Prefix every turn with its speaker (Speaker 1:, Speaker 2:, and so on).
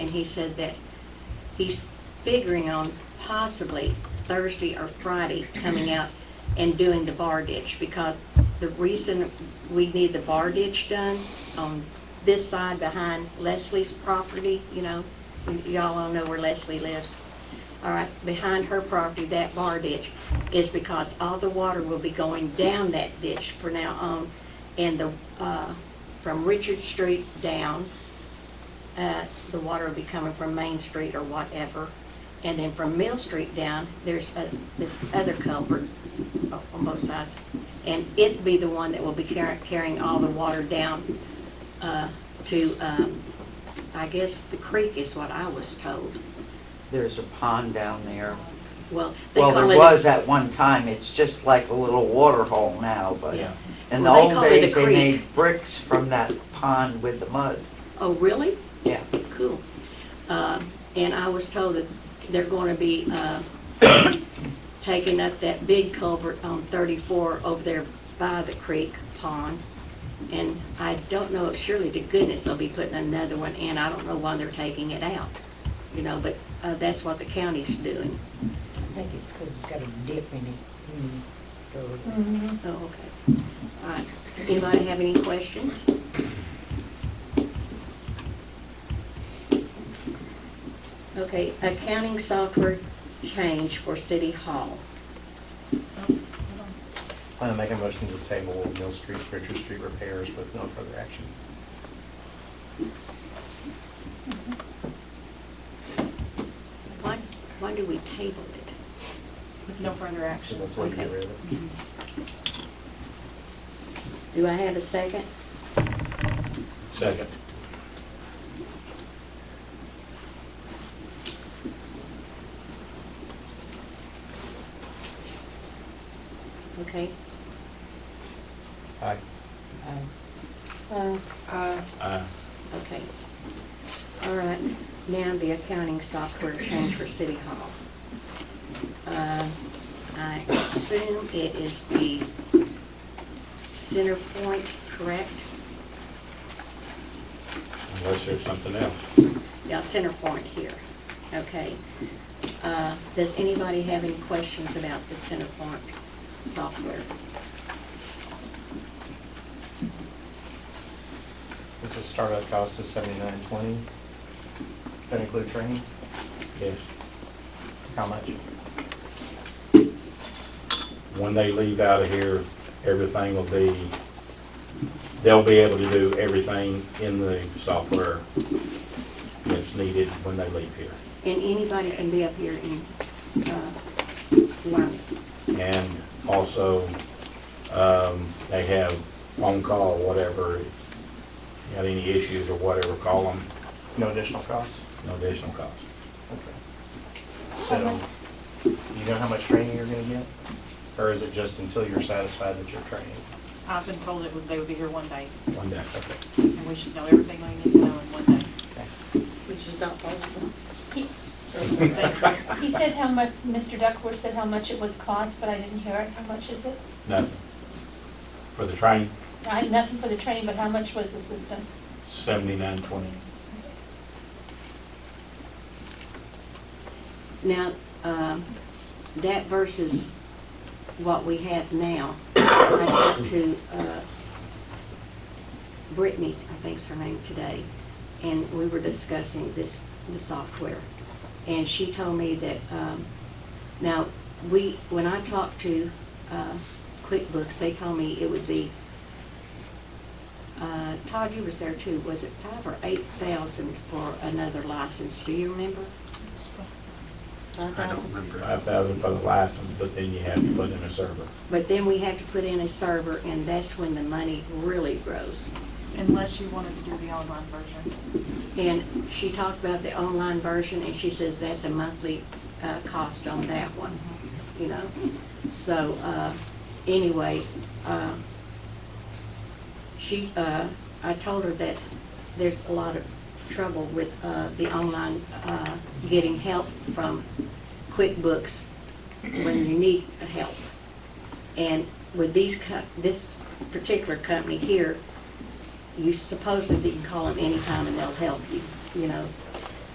Speaker 1: he said that he's figuring on possibly Thursday or Friday coming out and doing the bar ditch, because the reason we need the bar ditch done on this side behind Leslie's property, you know, y'all all know where Leslie lives. All right, behind her property, that bar ditch, is because all the water will be going down that ditch for now on, and the, uh, from Richard Street down, uh, the water will be coming from Main Street or whatever. And then from Mill Street down, there's uh, this other culvert o- on both sides. And it'd be the one that will be car- carrying all the water down uh, to, um, I guess, the creek is what I was told.
Speaker 2: There's a pond down there.
Speaker 1: Well, they
Speaker 2: Well,
Speaker 1: call it.
Speaker 2: there was at one time, it's just like a little water hole now, but
Speaker 3: Yeah.
Speaker 2: in the
Speaker 1: Well, they
Speaker 2: old
Speaker 1: call it a
Speaker 2: days, they
Speaker 1: creek.
Speaker 2: made bricks from that pond with the mud.
Speaker 1: Oh, really?
Speaker 2: Yeah,
Speaker 1: Cool. Uh, And I was told that they're going to be uh, taking up that big culvert on 34 over there by the creek pond. And I don't know, surely to goodness they'll be putting another one in. I don't know why they're taking it out, you know, but uh, that's what the county's doing.
Speaker 4: I think it's 'cause it's got a dip in it. Mm, so-
Speaker 1: Oh, okay. All right. Anybody have any questions? Okay, accounting software change for City Hall.
Speaker 3: I make a motion to table Mill Street, Richard Street repairs with no further action.
Speaker 1: Why, why do we table it?
Speaker 5: With no further
Speaker 3: So
Speaker 5: action.
Speaker 3: that's why you get
Speaker 1: Okay.
Speaker 3: rid of it.
Speaker 1: Do I have a second?
Speaker 3: Second.
Speaker 1: Okay.
Speaker 3: Aye.
Speaker 4: I-
Speaker 5: Uh,
Speaker 3: Aye.
Speaker 1: Okay. All right, now the accounting software change for City Hall. Uh, I assume it is the center point, correct?
Speaker 6: Unless there's something else.
Speaker 1: Yeah, center point here, okay. Uh, Does anybody have any questions about the center point software?
Speaker 3: This is startup cost is seventy-nine twenty. That include training?
Speaker 6: Yes.
Speaker 3: How much?
Speaker 6: When they leave out of here, everything will be, they'll be able to do everything in the software that's needed when they leave here.
Speaker 1: And anybody can be up here and uh, learn.
Speaker 6: And also, um, they have phone call, whatever, got any issues or whatever, call them,
Speaker 3: No additional costs?
Speaker 6: no additional cost.
Speaker 3: Okay. So, you know how much training you're gonna get? Or is it just until you're satisfied that you're training?
Speaker 5: I've been told it would, they would be here one day,
Speaker 6: One day.
Speaker 3: Okay.
Speaker 5: and we should know everything we need to know in one day.
Speaker 3: Okay.
Speaker 7: Which is not possible.
Speaker 8: He
Speaker 5: Thank you.
Speaker 8: he said how much, Mr. Duckworth said how much it was cost, but I didn't hear it. How much is it?
Speaker 6: Nothing. For the train,
Speaker 8: I, nothing for the training, but how much was the system?
Speaker 6: seventy-nine twenty.
Speaker 1: Now, um, that versus what we have now, I talked to uh, Brittany, I think's her name today, and we were discussing this, the software. And she told me that, um, now, we, when I talked to uh, QuickBooks, they told me it would be, uh, Todd, you was there too, was it five or eight thousand for another license? Do you remember? Five
Speaker 9: I don't
Speaker 1: thousand?
Speaker 9: remember.
Speaker 6: Five thousand for the license, but then you have to put in a server.
Speaker 1: But then we have to put in a server, and that's when the money really grows.
Speaker 5: Unless you wanted to do the online version.
Speaker 1: And she talked about the online version, and she says that's a monthly uh, cost on that one, you know? So, uh, anyway, uh, she, uh, I told her that there's a lot of trouble with uh, the online, uh, getting help from QuickBooks when you need help. And with these, co- this particular company here, you supposedly can call them anytime and they'll help you, you know,